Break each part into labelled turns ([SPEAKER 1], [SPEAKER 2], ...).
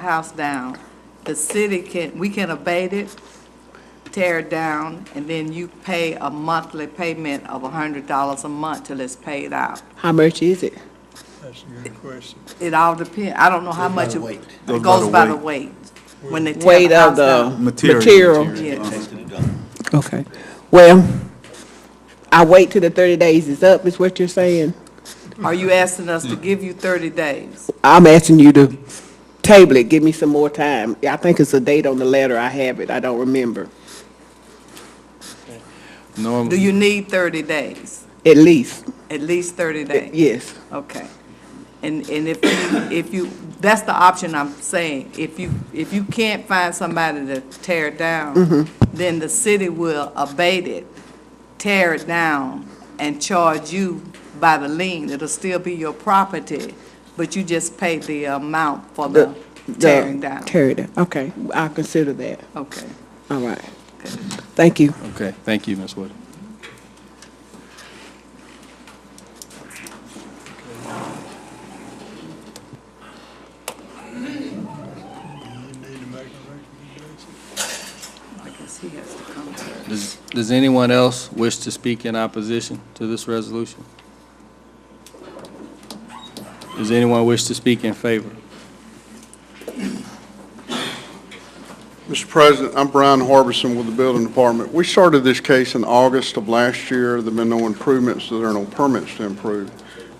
[SPEAKER 1] house down, the city can, we can abate it, tear it down, and then you pay a monthly payment of hundred dollars a month till it's paid out.
[SPEAKER 2] How much is it?
[SPEAKER 3] That's a good question.
[SPEAKER 1] It all depend, I don't know how much it
[SPEAKER 4] Goes
[SPEAKER 1] it
[SPEAKER 4] by
[SPEAKER 1] goes
[SPEAKER 4] the
[SPEAKER 1] by the weight. When they tear
[SPEAKER 2] Weight
[SPEAKER 1] the
[SPEAKER 2] of
[SPEAKER 1] house
[SPEAKER 2] the
[SPEAKER 1] down.
[SPEAKER 4] Material.
[SPEAKER 2] material?
[SPEAKER 1] Yeah.
[SPEAKER 2] Okay. Well, I wait till the thirty days is up, is what you're saying?
[SPEAKER 1] Are you asking us to give you thirty days?
[SPEAKER 2] I'm asking you to table it, give me some more time. I think it's a date on the letter, I have it, I don't remember,
[SPEAKER 4] No,
[SPEAKER 1] Do you need thirty days?
[SPEAKER 2] at least,
[SPEAKER 1] At least thirty days?
[SPEAKER 2] yes.
[SPEAKER 1] Okay. And, and if, you- if you, that's the option I'm saying. If you, if you can't find somebody to tear it down, then the city will abate it, tear it down, and charge you by the lien. It'll still be your property, but you just pay the amount for the
[SPEAKER 2] The-
[SPEAKER 1] tearing down.
[SPEAKER 2] Tear it down, okay, I'll consider that,
[SPEAKER 1] Okay.
[SPEAKER 2] all right. Thank you.
[SPEAKER 4] okay, thank you, Ms. Wood.
[SPEAKER 3] You need to make a recommendation.
[SPEAKER 1] I guess he has to come.
[SPEAKER 4] Does, does anyone else wish to speak in opposition to this resolution? Does anyone wish to speak in favor?
[SPEAKER 5] Mr. President, I'm Brian Harbison with the Building Department. We started this case in August of last year. There've been no improvements, so there are no permits to improve,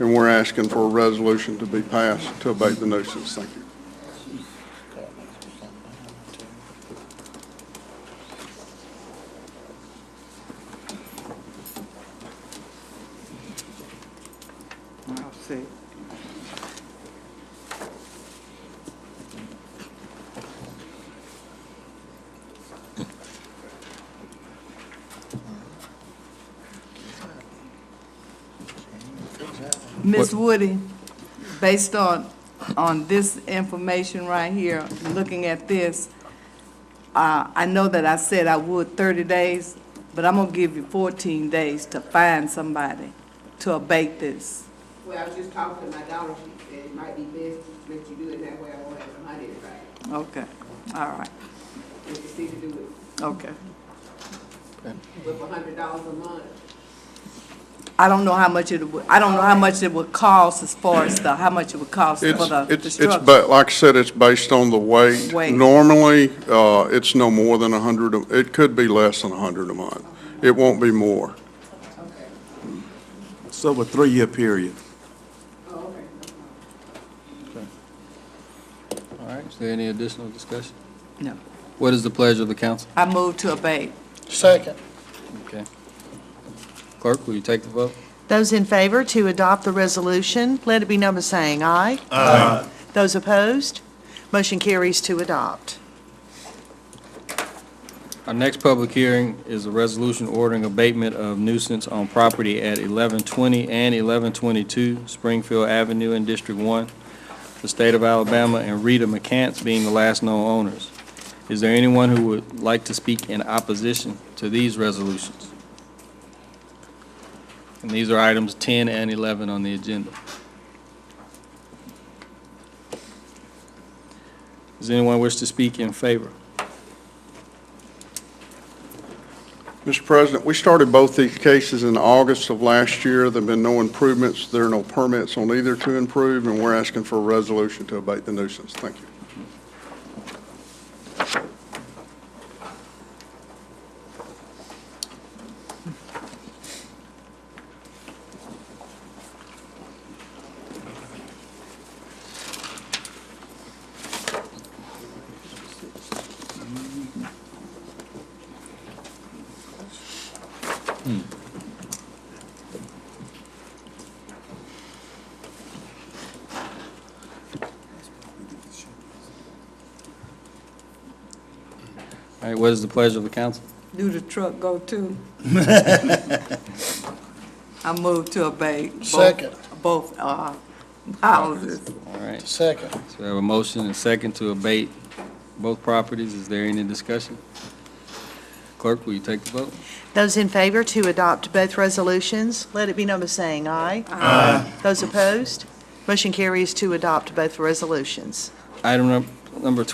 [SPEAKER 5] and we're asking for a resolution to be passed to abate the nuisance. Thank you.
[SPEAKER 1] I'll see. Ms. Woody, based on, on this information right here, looking at this, uh, I know that I said I would thirty days, but I'm gonna give you fourteen days to find somebody to abate this.
[SPEAKER 6] Well, I was just talking to my daughter, she said it might be best to let you do it that way, I won't have to hunt everybody,
[SPEAKER 1] Okay, all right,
[SPEAKER 6] if you see to do it
[SPEAKER 1] okay.
[SPEAKER 6] with a hundred dollars a month.
[SPEAKER 1] I don't know how much it would, I don't know how much it would cost as far as the, how much it would cost for the,
[SPEAKER 5] It's,
[SPEAKER 1] the
[SPEAKER 5] it's, it's,
[SPEAKER 1] structure.
[SPEAKER 5] ba- like I said, it's based on the weight.
[SPEAKER 1] Weight.
[SPEAKER 5] Normally, uh, it's no more than 100, a- it could be less than 100 a month. It won't be more.
[SPEAKER 7] It's over a three-year period.
[SPEAKER 6] Oh, okay.
[SPEAKER 4] All right, is there any additional discussion?
[SPEAKER 1] No.
[SPEAKER 4] What is the pleasure of the council?
[SPEAKER 1] I move to abate.
[SPEAKER 4] Okay. Clerk, will you take the vote?
[SPEAKER 8] Those in favor to adopt the resolution, let it be number saying aye. Aye. Those opposed, motion carries to adopt.
[SPEAKER 4] Our next public hearing is a resolution ordering abatement of nuisance on property at 1120 and 1122 Springfield Avenue in District 1, the state of Alabama, and Rita McCants being the last known owners. Is there anyone who would like to speak in opposition to these resolutions? And these are items 10 and 11 on the agenda. Does anyone wish to speak in favor?
[SPEAKER 5] Mr. President, we started both these cases in August of last year. There've been no improvements. There are no permits on either to improve, and we're asking for a resolution to abate the nuisance. Thank you.
[SPEAKER 4] All right, what is the pleasure of the council?
[SPEAKER 1] Do the truck go too? I move to abate. both-
[SPEAKER 9] Second.
[SPEAKER 1] Both, uh, houses.
[SPEAKER 4] All right, so
[SPEAKER 9] Second.
[SPEAKER 4] we have a motion and second to abate both properties. Is there any discussion? Clerk, will you take the vote?
[SPEAKER 8] Those in favor to adopt both resolutions, let it be number saying aye. Aye. Those opposed, motion carries to adopt both resolutions.
[SPEAKER 4] Item num- number